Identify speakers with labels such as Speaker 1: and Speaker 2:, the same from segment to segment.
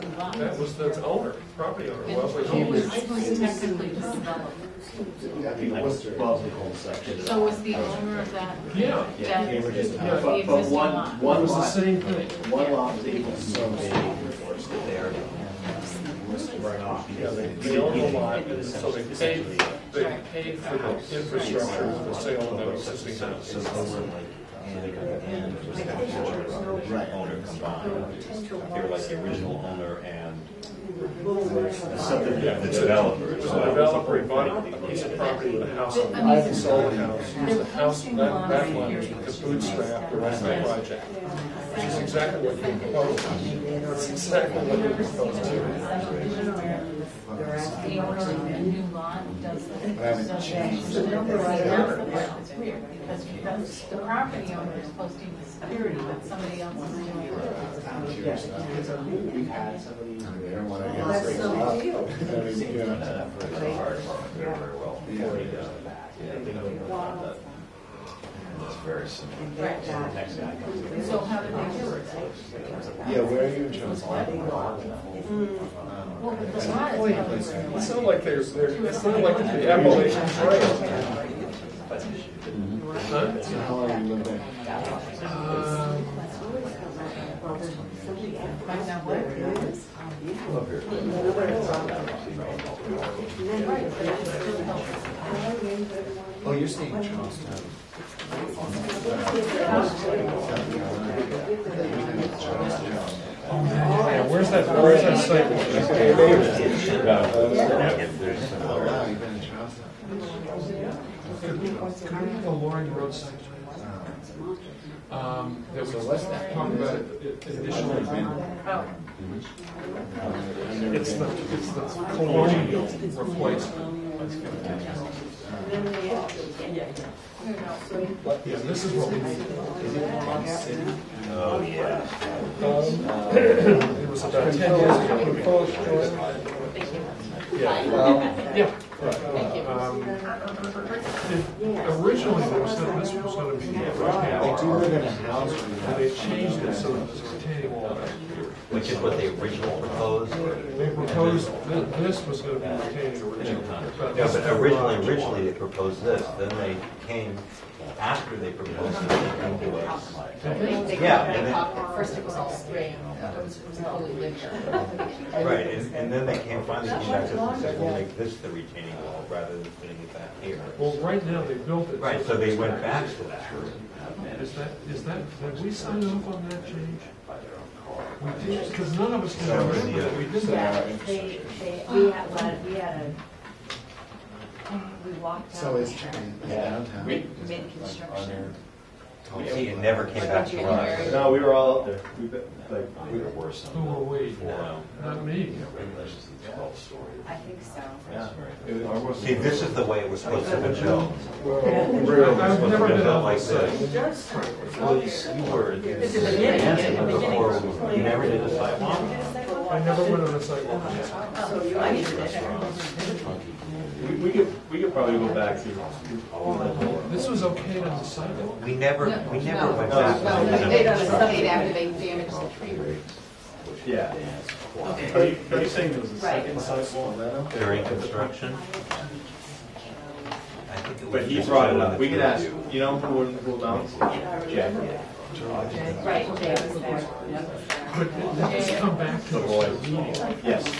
Speaker 1: That was the owner, property owner, Wesley
Speaker 2: He
Speaker 1: Holmes.
Speaker 2: was technically the developer.
Speaker 3: Wellesley Home section.
Speaker 2: So was the owner of that?
Speaker 1: Yeah.
Speaker 3: Yeah,
Speaker 2: that-
Speaker 3: Cambridge.
Speaker 2: the
Speaker 3: But, but
Speaker 2: existing
Speaker 3: one,
Speaker 2: lot?
Speaker 1: It
Speaker 3: one
Speaker 1: was the
Speaker 3: lot,
Speaker 1: same thing.
Speaker 3: one lot was able to survey that they already run off because they.
Speaker 1: They own the lot, and so they paid, they paid for the infrastructure for sale of their existing house.
Speaker 3: So they were like, so they got and it was that
Speaker 4: the
Speaker 3: original
Speaker 4: Right.
Speaker 3: owner combined.
Speaker 4: They were like the original owner and
Speaker 3: The subdivision.
Speaker 4: the developer.
Speaker 1: It was
Speaker 4: so
Speaker 1: a
Speaker 4: that was the whole
Speaker 1: developer, he bought
Speaker 4: thing.
Speaker 1: a piece of property with a house on
Speaker 2: I
Speaker 1: it.
Speaker 2: mean,
Speaker 1: He sold the house, He used the house, that, that one, to bootstrap the rest of the project. Which is exactly what you proposed. That's exactly what you proposed to.
Speaker 2: The owner of the new lot does the. does the- the number right now, that's weird, because that's- the property owner is posting the security, but somebody else is doing it.
Speaker 3: We've had somebody.
Speaker 5: They don't want to get
Speaker 6: That's
Speaker 5: things
Speaker 6: the
Speaker 5: up. I
Speaker 6: deal.
Speaker 5: mean, you know,
Speaker 4: Very well.
Speaker 3: Forty does the back. Yeah, they don't know about
Speaker 4: It's very simple.
Speaker 3: the next guy comes in.
Speaker 2: So how did they do it?
Speaker 5: Yeah, where are you in terms of?
Speaker 2: Well, with the lot is probably.
Speaker 1: It's not like there's, there, it's not like the Appalachian Trail.
Speaker 5: So how long you live there?
Speaker 1: Uh,
Speaker 2: Right now, where?
Speaker 5: Oh, you're staying in Charleston.
Speaker 1: Yeah, where's that, where's that site?
Speaker 5: Oh, wow, you've been in Charleston.
Speaker 1: Can we have the Loring Road site? Um, that we talked about
Speaker 4: Oh.
Speaker 1: initially. It's the, it's the colonial replacement. Yeah, this is what we need.
Speaker 4: Oh, yeah.
Speaker 1: It was about ten years ago. Yeah, well, yeah. Um, it- Originally, there was, no- this was gonna be a
Speaker 5: I do live
Speaker 1: retaining
Speaker 5: in a house with
Speaker 1: and they changed it so that it was a retaining wall back here.
Speaker 4: Which is what they originally proposed or?
Speaker 1: They proposed, thi- this was gonna be retaining originally.
Speaker 4: Yeah, but originally, originally they proposed this, then they came, after they proposed it, they came to us. Yeah, and then-
Speaker 2: First it was all spray, it was, it was totally linear.
Speaker 4: right, and, and then they came finally came back to us and said, we'll make this the retaining wall rather than putting it back here.
Speaker 1: Well, right now, they built it.
Speaker 4: Right, so they went back to that.
Speaker 1: Is that, is that, did we sign off on that change? We did, because none of us can remember
Speaker 4: uh,
Speaker 1: that we did
Speaker 6: Yeah,
Speaker 1: that.
Speaker 6: they, they, we had, one- we had a, we walked out.
Speaker 5: So it's downtown.
Speaker 3: We-
Speaker 2: Mid-construction.
Speaker 4: See, it never came back to us.
Speaker 3: No, we were all up there. We've been, like,
Speaker 4: We were worse
Speaker 1: Who were
Speaker 4: on
Speaker 1: we?
Speaker 4: the forum.
Speaker 1: Not me.
Speaker 4: Twelve story.
Speaker 6: I think so.
Speaker 4: Yeah.
Speaker 5: I wasn't-
Speaker 4: See, this is the way it was supposed to be built.
Speaker 1: I've never been on
Speaker 4: Like
Speaker 1: this site.
Speaker 4: this. Well, you were. This
Speaker 2: is the beginning, yeah, the beginning.
Speaker 4: You never did a sidewalk.
Speaker 1: I never went on a sidewalk.
Speaker 2: I needed it.
Speaker 3: We, we could, we could probably go back to.
Speaker 1: This was okay on the sidewalk?
Speaker 4: We never, we never went back.
Speaker 2: No, they- they done a study after they damaged the tree roots.
Speaker 3: Yeah. Are you, are you saying there was a second sidewalk?
Speaker 4: During construction? I think it was
Speaker 3: But he
Speaker 4: just
Speaker 3: brought it
Speaker 4: showing
Speaker 3: up,
Speaker 4: the
Speaker 3: we could
Speaker 4: two of
Speaker 3: ask,
Speaker 4: you.
Speaker 3: you know, who wouldn't cool down? Jack.
Speaker 6: Right, they was there.
Speaker 1: But that was come back to us in the meeting.
Speaker 3: Yes,
Speaker 1: It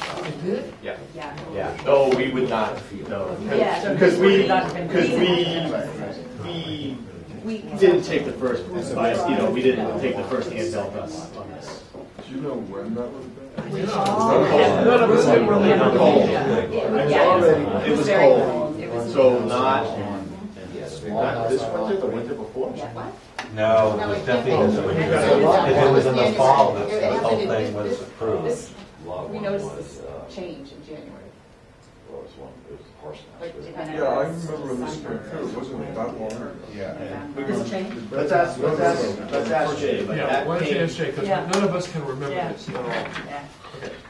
Speaker 1: did?
Speaker 3: yeah,
Speaker 6: Yeah.
Speaker 3: yeah. No, we would not, no.
Speaker 6: Yeah.
Speaker 3: Because we, because
Speaker 5: Right,
Speaker 3: we,
Speaker 6: We.
Speaker 3: we didn't take the first, advice, you know, we didn't take the first hand dealt us on this.
Speaker 5: Do you know when that would have been?
Speaker 1: None of us can remember.
Speaker 3: Cold.
Speaker 6: It
Speaker 5: I
Speaker 6: was,
Speaker 5: was
Speaker 6: yeah, it was-
Speaker 3: already, it was
Speaker 6: very
Speaker 3: cold,
Speaker 6: It was.
Speaker 3: so not,
Speaker 5: Not this winter, the winter before?
Speaker 4: No, it was definitely this winter. Because it was in the fall that the whole thing was approved.
Speaker 2: This- We noticed this change in January. Like, it kind of-
Speaker 7: Yeah, I remember this one too, it wasn't that long ago.
Speaker 5: Yeah.
Speaker 2: This change?
Speaker 3: let's ask, let's ask, let's ask Jay, but
Speaker 1: Yeah,
Speaker 3: that
Speaker 1: why don't you
Speaker 3: came,
Speaker 1: ask Jay, because
Speaker 6: Yeah.
Speaker 1: none of us can remember this at all.
Speaker 6: Yeah,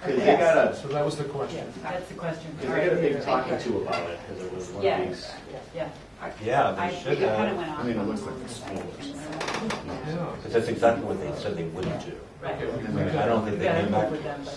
Speaker 3: they got a,
Speaker 1: So that was the question.
Speaker 6: that's the question.
Speaker 3: Because I got a big talking to about it, because it was one
Speaker 6: Yeah.
Speaker 3: of these.
Speaker 6: Yeah.
Speaker 4: Yeah,
Speaker 6: I,
Speaker 4: they
Speaker 6: it
Speaker 4: should
Speaker 6: kind of
Speaker 4: have.
Speaker 6: went
Speaker 5: I
Speaker 6: off.
Speaker 5: mean, it looks like a school.
Speaker 1: Yeah.
Speaker 4: Because that's exactly what they said they wouldn't do.
Speaker 6: Right.
Speaker 4: I mean, I don't think they
Speaker 6: Yeah, I
Speaker 4: came back
Speaker 6: remember them, but-